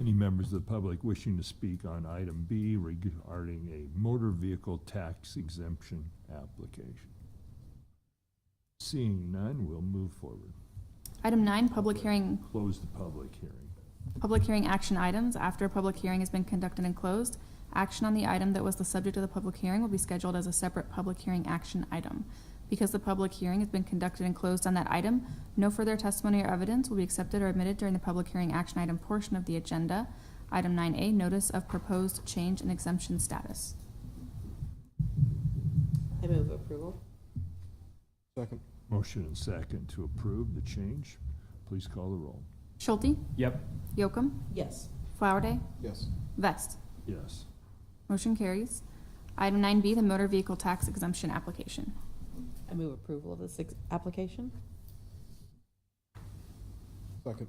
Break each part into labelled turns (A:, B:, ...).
A: Any members of the public wishing to speak on item B regarding a motor vehicle tax exemption application? Seeing none, we'll move forward.
B: Item nine, public hearing,
A: Close the public hearing.
B: public hearing action items. After a public hearing has been conducted and closed, action on the item that was the subject of the public hearing will be scheduled as a separate public hearing action item. Because the public hearing has been conducted and closed on that item, no further testimony or evidence will be accepted or admitted during the public hearing action item portion of the agenda. Item nine A, notice of proposed change in exemption status.
C: I move approval.
D: Second.
A: Motion and second to approve the change. Please call the roll.
B: Schulte,
E: Yep.
B: Yocum,
C: Yes.
B: Flowerday,
D: Yes.
B: Vest.
A: Yes.
B: Motion carries. Item nine B, the motor vehicle tax exemption application.
C: I move approval of this ex- application.
D: Second.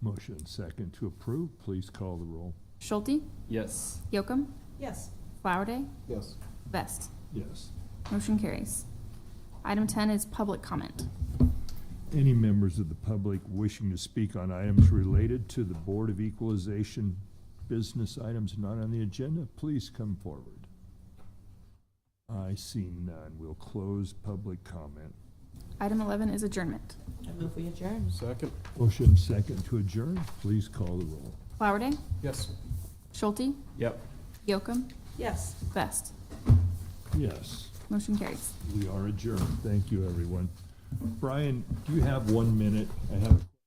A: Motion and second to approve. Please call the roll.
B: Schulte,
E: Yes.
B: Yocum,
C: Yes.
B: Flowerday,
D: Yes.
B: Vest.
A: Yes.
B: Motion carries. Item ten is public comment.
A: Any members of the public wishing to speak on items related to the Board of Equalization business items not on the agenda, please come forward. I see none. We'll close public comment.
B: Item eleven is adjournment.
C: I move we adjourn.
D: Second.
A: Motion second to adjourn. Please call the roll.
B: Flowerday,
D: Yes.
B: Schulte,
E: Yep.
B: Yocum,
C: Yes.
B: Vest.
A: Yes,
B: Motion carries.
A: we are adjourned. Thank you, everyone. Brian, do you have one minute? I have.